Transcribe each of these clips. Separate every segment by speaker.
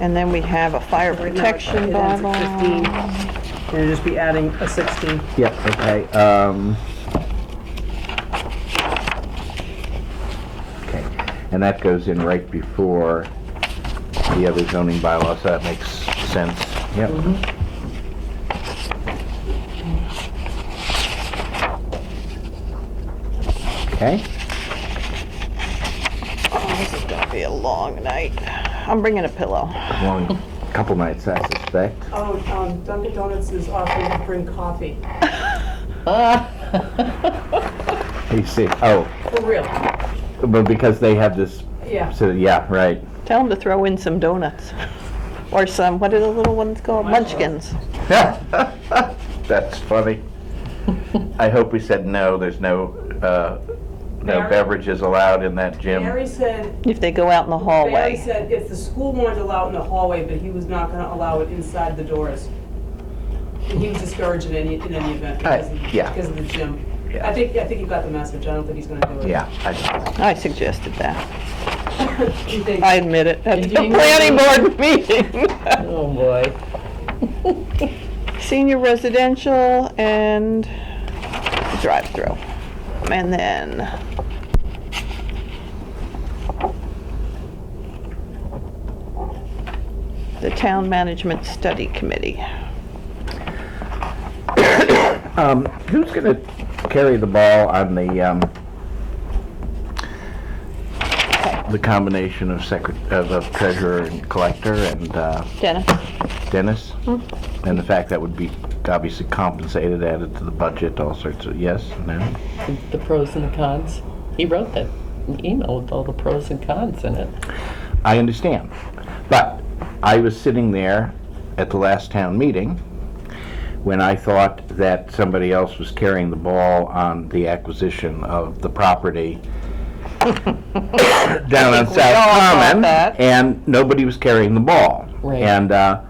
Speaker 1: And then we have a fire protection
Speaker 2: It ends at
Speaker 1: bylaw.
Speaker 2: 15. And you'd just be adding a 16.
Speaker 3: Yep, okay, um. Okay, and that goes in right before the other zoning bylaw, so that makes sense, yep. Okay,
Speaker 1: Oh, This is gonna be a long night. I'm bringing a pillow.
Speaker 3: long, couple nights, I suspect.
Speaker 2: Oh, um, Dunkin' Donuts is offering to bring coffee.
Speaker 3: You see, oh,
Speaker 2: For real?
Speaker 3: but because they have this,
Speaker 2: Yeah.
Speaker 3: so, yeah, right.
Speaker 1: Tell them to throw in some donuts. Or some, what are the little ones called? Munchkins.
Speaker 3: That's funny. I hope we said no, there's no, uh, no
Speaker 2: Barry?
Speaker 3: beverages allowed in that gym.
Speaker 2: Barry said,
Speaker 1: If they go out in the
Speaker 2: Barry
Speaker 1: hallway.
Speaker 2: said if the school wanted to allow it in the hallway, but he was not gonna allow it inside the doors. And he was discouraged in any, in any event because of,
Speaker 3: Uh, yeah.
Speaker 2: because of the gym.
Speaker 3: Yeah.
Speaker 2: I think, I think you got the message, I don't think he's gonna do it.
Speaker 3: Yeah, I,
Speaker 1: I suggested that.
Speaker 2: You think-
Speaker 1: I admit it at the
Speaker 2: Did you-
Speaker 1: planning board meeting.
Speaker 4: Oh, boy.
Speaker 1: Senior residential and drive-through. And then the town management study committee.
Speaker 3: um, who's gonna carry the ball on the, um, the combination of secret, of of treasurer and collector and, uh,
Speaker 1: Jenna?
Speaker 3: Dennis?
Speaker 2: Mm-hmm.
Speaker 3: And the fact that would be obviously compensated, added to the budget, all sorts of, yes, no?
Speaker 4: The pros and the cons. He wrote that email with all the pros and cons in it.
Speaker 3: I understand. But I was sitting there at the last town meeting when I thought that somebody else was carrying the ball on the acquisition of the property down on
Speaker 1: we
Speaker 3: South
Speaker 1: all thought
Speaker 3: Common,
Speaker 1: that.
Speaker 3: and nobody was carrying the ball.
Speaker 4: Right.
Speaker 3: And uh,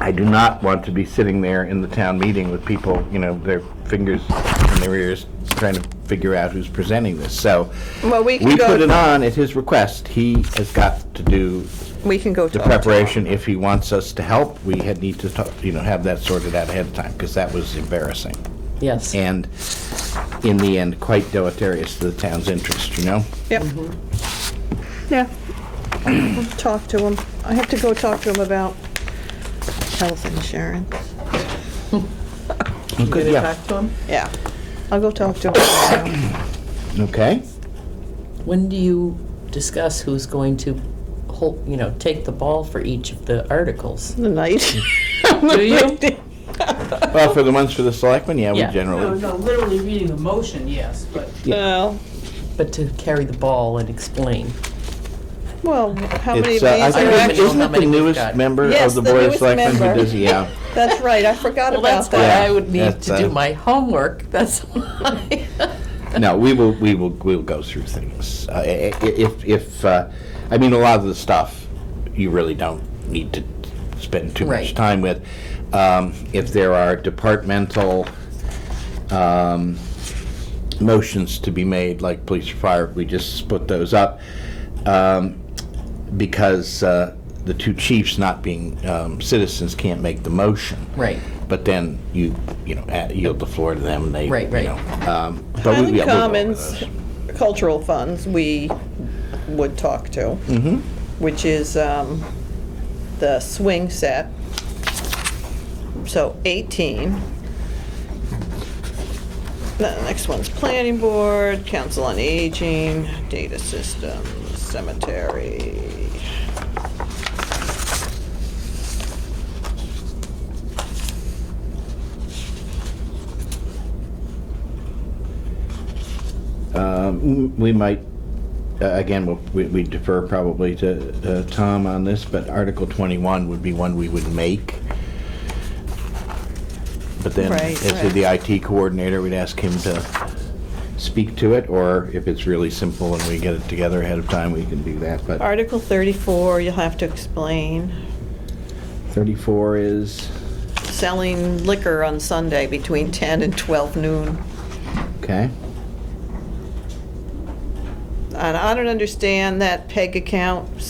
Speaker 3: I do not want to be sitting there in the town meeting with people, you know, their fingers in their ears, trying to figure out who's presenting this. So
Speaker 1: Well, we can
Speaker 3: we
Speaker 1: go
Speaker 3: put it on at his request. He has got to do
Speaker 1: We can go to.
Speaker 3: the preparation. If he wants us to help, we had need to, talk- you know, have that sorted out ahead of time, because that was embarrassing.
Speaker 4: Yes.
Speaker 3: And in the end, quite deleterious to the town's interest, you know?
Speaker 1: Yep. Yeah. I'll Talk to him. I have to go talk to him about health insurance.
Speaker 3: Good, yeah.
Speaker 2: to him?
Speaker 1: Yeah. I'll go talk to him. tomorrow.
Speaker 3: Okay?
Speaker 4: When do you discuss who's going to hold, you know, take the ball for each of the articles?
Speaker 1: The night.
Speaker 4: Do you?
Speaker 3: Well, for the ones for the selectmen, yeah, we
Speaker 4: Yeah.
Speaker 2: No,
Speaker 3: generally,
Speaker 2: no, literally reading the motion, yes, but
Speaker 1: Well,
Speaker 4: But to carry the ball and explain.
Speaker 1: well, how many of
Speaker 3: it's,
Speaker 1: these
Speaker 3: uh, I
Speaker 1: are
Speaker 3: think,
Speaker 4: actually-
Speaker 1: actually?
Speaker 3: isn't it
Speaker 4: How many
Speaker 3: the
Speaker 4: we've
Speaker 3: newest
Speaker 4: got?
Speaker 3: member
Speaker 1: Yes,
Speaker 3: of the
Speaker 1: the
Speaker 3: Board of
Speaker 1: newest
Speaker 3: Selectmen who
Speaker 1: member.
Speaker 3: does, yeah?
Speaker 1: That's right. I forgot
Speaker 4: Well,
Speaker 1: about
Speaker 4: that's why
Speaker 1: that.
Speaker 4: I would need
Speaker 3: That's,
Speaker 4: to
Speaker 3: uh,
Speaker 4: do my homework, that's why.
Speaker 3: No, we will, we will, we'll go through things. Uh, i- i- If, if, uh, I mean, a lot of the stuff, you really don't need to spend too much
Speaker 4: Right.
Speaker 3: time with. Um, If there are departmental um, motions to be made, like police or fire, we just split those up. Um, Because uh, the two chiefs not being um, citizens can't make the motion.
Speaker 4: Right.
Speaker 3: But then you, you know, add- yield the floor to them, and they,
Speaker 4: Right,
Speaker 3: you
Speaker 4: right.
Speaker 3: know. um, but we-
Speaker 1: Highland
Speaker 3: yeah, we'll go over
Speaker 1: Commons
Speaker 3: those.
Speaker 1: Cultural Funds, we would talk to.
Speaker 3: Mm-hmm.
Speaker 1: Which is um, the swing set. So 18. The next one's Planning Board, Council on Aging, Data Systems, Cemetery.
Speaker 3: Um, We might, uh, again, we'll- we we defer probably to uh, Tom on this, but Article 21 would be one we would make. But then,
Speaker 1: Right,
Speaker 3: as to the IT coordinator, we'd ask him to speak to it, or if it's really simple and we get it together ahead of time, we can do that. But
Speaker 1: Article 34, you'll have to explain.
Speaker 3: 34 is,
Speaker 1: Selling liquor on Sunday between 10 and 12 noon.
Speaker 3: okay,
Speaker 1: And I don't understand that PEG account,